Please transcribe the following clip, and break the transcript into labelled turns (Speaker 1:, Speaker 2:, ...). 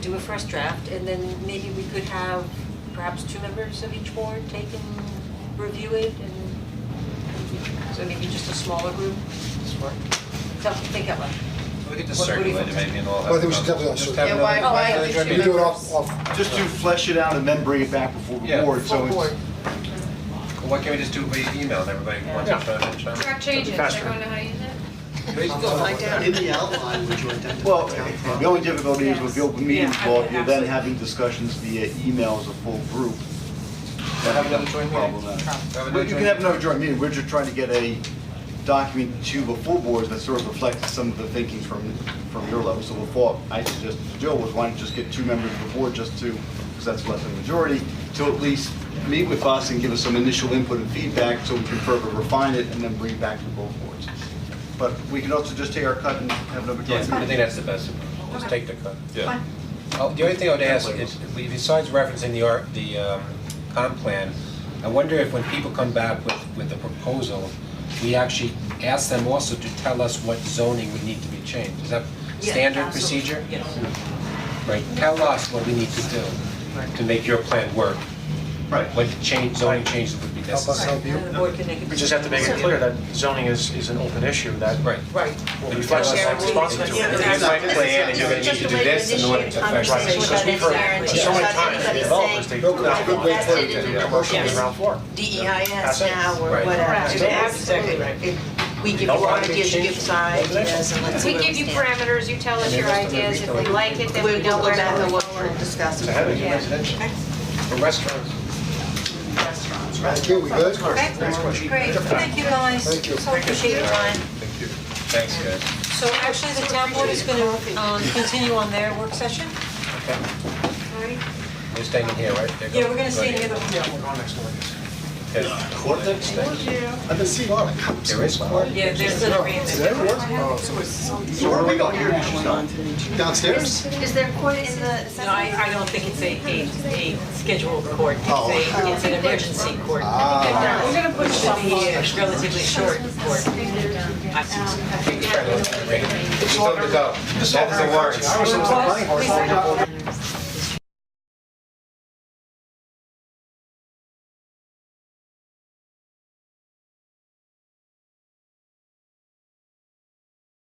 Speaker 1: do a first draft, and then maybe we could have perhaps two members of each board take and review it and so maybe just a smaller group.
Speaker 2: Smart.
Speaker 1: So think that one.
Speaker 2: We
Speaker 1: What-
Speaker 2: could just
Speaker 1: what do you
Speaker 2: circulate it
Speaker 1: think?
Speaker 2: maybe and all have.
Speaker 3: Well, I think we
Speaker 2: to
Speaker 3: should
Speaker 2: go.
Speaker 3: definitely
Speaker 2: Just
Speaker 3: also-
Speaker 2: have
Speaker 1: Yeah,
Speaker 2: another-
Speaker 1: why- oh, I
Speaker 2: another
Speaker 1: think
Speaker 2: joint
Speaker 1: we
Speaker 3: We
Speaker 2: meeting.
Speaker 3: do it off, off,
Speaker 4: Just to flesh it out and then bring it back before
Speaker 2: Yeah.
Speaker 4: the board, so
Speaker 1: Full board.
Speaker 4: it's,
Speaker 2: Well, Why can't we just do it by email and everybody
Speaker 1: Yeah.
Speaker 2: wants to try and try?
Speaker 5: Track changes,
Speaker 4: Faster.
Speaker 5: everyone know how to use it?
Speaker 2: Maybe just go find out.
Speaker 6: In the outline, would you identify?
Speaker 4: well, the only difficulty is with the open meetings
Speaker 1: Yeah,
Speaker 4: law, you're then
Speaker 1: absolutely.
Speaker 4: having discussions via email as a full group.
Speaker 2: We'll have another joint meeting.
Speaker 4: Problematic.
Speaker 2: Have another
Speaker 4: Well, You
Speaker 2: joint
Speaker 4: can have
Speaker 2: meeting.
Speaker 4: another joint meeting, we're just trying to get a document to the full boards that sort of reflects some of the thinking from, from your level. So before, I suggested to Joe was why don't you just get two members of the board just to, because that's less than a majority, to at least meet with us and give us some initial input and feedback so we can further refine it and then bring it back to both boards. But we can also just take our cut and have another
Speaker 2: Yeah,
Speaker 4: joint
Speaker 2: I think
Speaker 4: meeting.
Speaker 2: that's the best, approach. just take the cut.
Speaker 7: Yeah.
Speaker 2: Oh, The only thing I would ask is, we- besides referencing the art, the um, comp plan, I wonder if when people come back with, with a proposal, we actually ask them also to tell us what zoning would need to be changed. Is that
Speaker 1: Yeah,
Speaker 2: standard
Speaker 1: absolutely.
Speaker 2: procedure?
Speaker 1: Yes.
Speaker 2: Right, tell us what we need to do to make your plan work,
Speaker 4: Right.
Speaker 2: what change, zoning changes would be
Speaker 3: help us
Speaker 2: necessary.
Speaker 3: help you.
Speaker 1: And the board can make a
Speaker 8: We just have to make it
Speaker 1: decision.
Speaker 8: clear that zoning is, is an open issue that
Speaker 2: Right.
Speaker 1: Right.
Speaker 8: will be flexible
Speaker 1: Yeah,
Speaker 8: and
Speaker 1: we-
Speaker 8: responsive to.
Speaker 1: yeah,
Speaker 8: it.
Speaker 2: Here's my plan, and you're gonna need to do this, and what it affects.
Speaker 8: Right, because we've heard
Speaker 1: Exactly.
Speaker 8: so many
Speaker 1: Without
Speaker 8: times, the
Speaker 1: anybody
Speaker 8: developers, they do not
Speaker 2: Good way
Speaker 8: want
Speaker 2: to put it, yeah.
Speaker 8: commercial in the ground floor.
Speaker 9: DEIS
Speaker 8: That's it.
Speaker 9: E now or
Speaker 2: Right.
Speaker 9: whatever.
Speaker 5: Correct.
Speaker 9: It's
Speaker 1: Absolutely right.
Speaker 9: if We give
Speaker 8: No
Speaker 9: you
Speaker 8: one can
Speaker 9: ideas, you
Speaker 8: change
Speaker 9: give side,
Speaker 8: the
Speaker 9: yes, and let's see
Speaker 5: We
Speaker 9: where we
Speaker 5: give you
Speaker 9: stand.
Speaker 5: parameters, you tell us your ideas, if we like it, then
Speaker 9: We
Speaker 5: we
Speaker 9: will
Speaker 5: know
Speaker 9: go
Speaker 5: where
Speaker 9: back
Speaker 5: to
Speaker 9: and
Speaker 5: go
Speaker 9: what we're
Speaker 5: forward.
Speaker 9: discussing.
Speaker 8: It's a headache.
Speaker 5: Yeah.
Speaker 2: Residential, or restaurants.
Speaker 9: Restaurants, right?
Speaker 3: Thank you, we good?
Speaker 1: Okay, great, thank you guys,
Speaker 3: Thank you.
Speaker 1: so appreciate your time.
Speaker 2: Thank you. Thanks, guys.
Speaker 1: So actually, the town board is gonna um continue on their work session,
Speaker 2: Okay,
Speaker 1: alright?
Speaker 2: we're staying in here, right? They're
Speaker 1: Yeah, we're
Speaker 2: going-
Speaker 1: gonna stay
Speaker 2: going
Speaker 1: together.
Speaker 8: We're going next door.
Speaker 2: Okay.
Speaker 3: I've been seeing a lot of cops.
Speaker 2: There is court.
Speaker 1: Yeah, there's the
Speaker 3: Is that where it was?
Speaker 4: Oh, So where are we going?
Speaker 3: Downstairs?
Speaker 5: Is there court in the
Speaker 1: No, I I don't think it's a a a scheduled court, it's
Speaker 3: Oh.
Speaker 1: a it's an emergency court.
Speaker 3: Ah.
Speaker 1: We're gonna push it to be a relatively short court. I-
Speaker 2: It's time to go. That is the word.
Speaker 1: Pause, please.